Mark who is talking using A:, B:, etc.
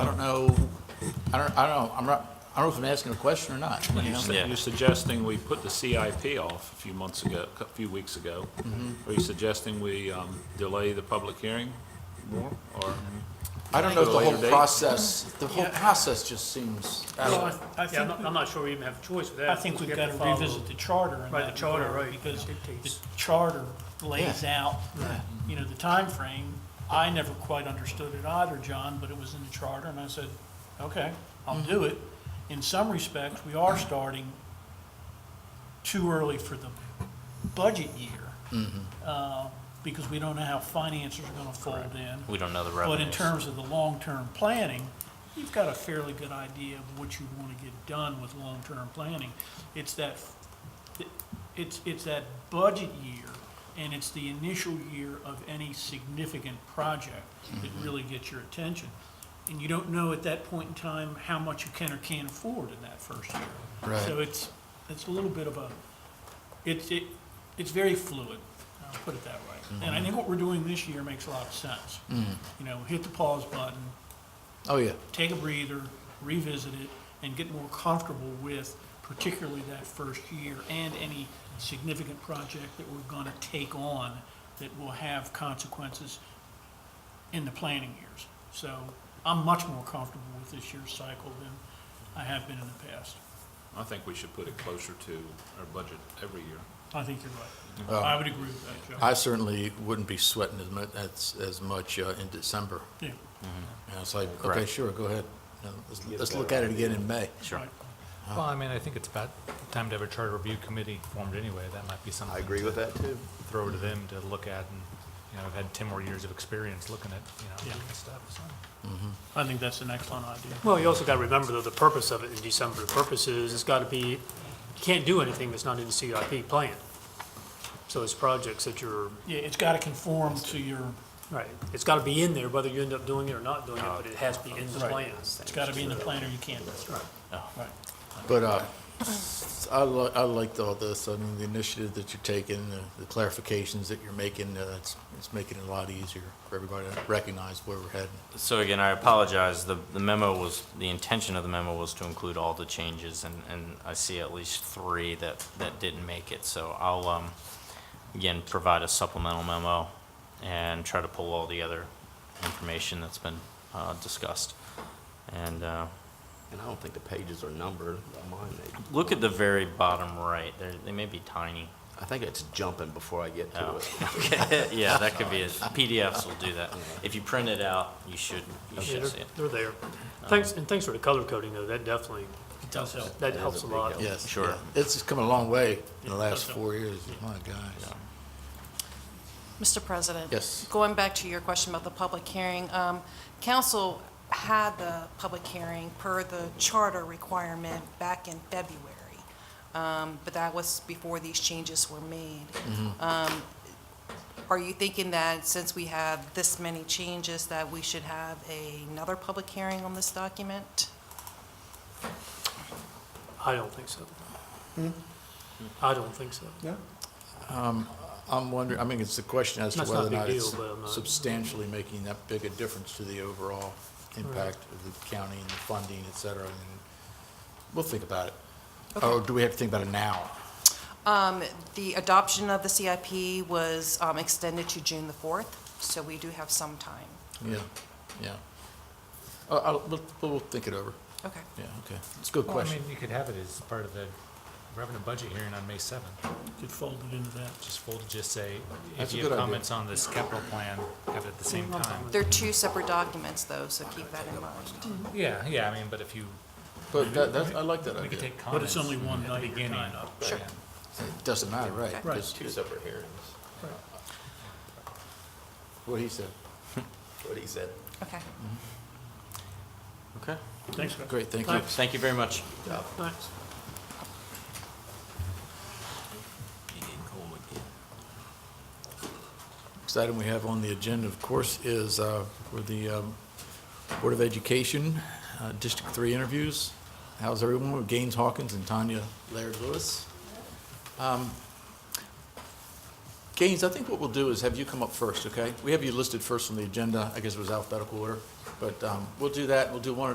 A: I don't, I don't know, I'm not, I don't know if I'm asking a question or not, you
B: You
A: know?
B: su- You're suggesting we put the CIP off a few months ago, a few weeks ago. Are you suggesting we um, delay the public hearing more, or?
A: I don't know if the whole
B: Later date.
A: process, the whole process just seems out
C: Well,
A: of,
D: Yeah,
C: I I
D: I'm
C: think,
D: not, I'm not sure we even have a choice with that.
C: I think
D: because
C: we've
D: we
C: got
D: have
C: to
D: follow-
C: revisit the charter in
D: Right,
C: that
D: the charter,
C: regard,
D: right,
C: Because the
D: dictates.
C: charter lays
A: Yeah.
C: out, you know, the time frame. I never quite understood it either, John, but it was in the charter, and I said, okay, I'll do it. In some respects, we are starting too early for the budget year, uh, because we don't know how finances are going to fold in.
E: We don't know the
C: But in
E: revenues.
C: terms of the long-term planning, you've got a fairly good idea of what you want to get done with long-term planning. It's that, it's, it's that budget year, and it's the initial year of any significant project that
E: Mm-hmm.
C: really gets your attention. And you don't know at that point in time how much you can or can't afford in that first year.
A: Right.
C: So it's, it's a little bit of a, it's, it, it's very fluid, I'll put it that way. And I think what we're doing this year makes a lot of sense. You know, hit the pause button,
A: oh, yeah.
C: take a breather, revisit it, and get more comfortable with particularly that first year and any significant project that we're gonna take on that will have consequences in the planning years. So I'm much more comfortable with this year's cycle than I have been in the past.
B: I think we should put it closer to our budget every year.
C: I think you're right. I would agree with that, Joe.
A: I certainly wouldn't be sweating as much, as, as much uh, in December.
C: Yeah,
A: You know, it's like, okay,
E: Correct.
A: sure, go ahead. You know, Let's, let's look at it again in May.
E: Sure.
C: right.
F: Well, I mean, I think it's about time to have a charter review committee formed anyway. That might be something.
G: I agree
F: to
G: with that too.
F: Throw to them to look at and, you know, I've had ten more years of experience looking at, you know,
C: Yeah.
F: doing this stuff, so. Mm-hmm.
C: I think that's an excellent idea.
D: Well, you also got to remember though, the purpose of it in December, the purpose is, it's got to be, you can't do anything that's not in the CIP plan. So it's projects that you're,
C: Yeah, it's gotta conform to your,
D: right, it's got to be in there, whether you end up doing it or not doing it, but it has to be in the
C: Right.
D: plan.
C: it's gotta be in the plan or you can't. Right. Right.
A: But, uh, I li, I liked all this. I mean, the initiative that you're taking, the- the clarifications that you're making, uh, it's, it's making it a lot easier for everybody to recognize where we're heading.
E: So again, I apologize. The, the memo was, the intention of the memo was to include all the changes and, and I see at least three that, that didn't make it. So I'll, um, again, provide a supplemental memo and try to pull all the other information that's been, uh, discussed. And, uh,
G: And I don't think the pages are numbered on mine. They-
E: look at the very bottom right. They're, they may be tiny.
G: I think it's jumping before I get to
E: Oh,
G: it.
E: okay. Yeah, that could be it. PDFs will do that. If you print it out, you should, you
D: Yeah,
E: should see
D: They're
E: it.
D: they're there. Thanks, and thanks for the color coding though, that definitely,
C: It does help.
D: that
G: is a
D: helps a
G: big
D: lot.
G: help.
A: Yes.
E: Sure.
A: yeah. It's just come a long way in the last four years. My gosh.
H: Mr. President?
A: Yes.
H: Going back to your question about the public hearing, um, council had the public hearing per the charter requirement back in February, um, but that was before these changes were made.
A: Mm-hmm.
H: Um, Are you thinking that since we have this many changes, that we should have another public hearing on this document?
D: I don't think so. Hmm? I don't think so.
A: I'm wondering, I mean, it's the question as to
D: That's not
A: whether or
D: a big
A: not
D: deal,
A: it's
D: but I'm not-
A: substantially making that big a difference to the overall impact of the county and the funding, et cetera. And we'll think about it. Or do we have to think about it now?
H: Um, The adoption of the CIP was um, extended to June the 4th, so we do have some time.
A: Yeah, yeah. Uh, I'll, we'll, we'll think it over.
H: Okay.
A: Yeah, okay. It's a good
F: Well, I
A: question.
F: mean, you could have it as part of the revenue budget hearing on May seventh.
C: Could fold it into that.
F: Just full to just say,
A: That's
F: if
A: a
F: you have
A: good idea.
F: comments on this capital plan, have it at the same time.
H: They're two separate documents, though, so keep that in mind.
F: Yeah, yeah, I mean, but if you,
A: But that, that, I like that
F: we could
A: idea.
F: take
C: But
F: comments
C: it's
F: at
C: only
F: the
C: one night you're
F: beginning.
C: tying up.
H: Sure.
F: Yeah.
A: It Doesn't matter, right?
H: Okay.
C: Right.
A: Just
G: Two separate hearings,
A: What he said.
G: what he said.
H: Okay.
E: Okay.
C: Thanks, guys.
A: Great, thank you.
E: Thank you very much.
D: Thanks.
A: Next item we have on the agenda, of course, is uh, for the um, Board of Education, uh, District 3 interviews. How's everyone? We're Gaines Hawkins and Tanya Laird Lewis. Um, Gaines, I think what we'll do is have you come up first, okay? We have you listed first on the agenda. I guess it was alphabetical order, but um, we'll do that. We'll do one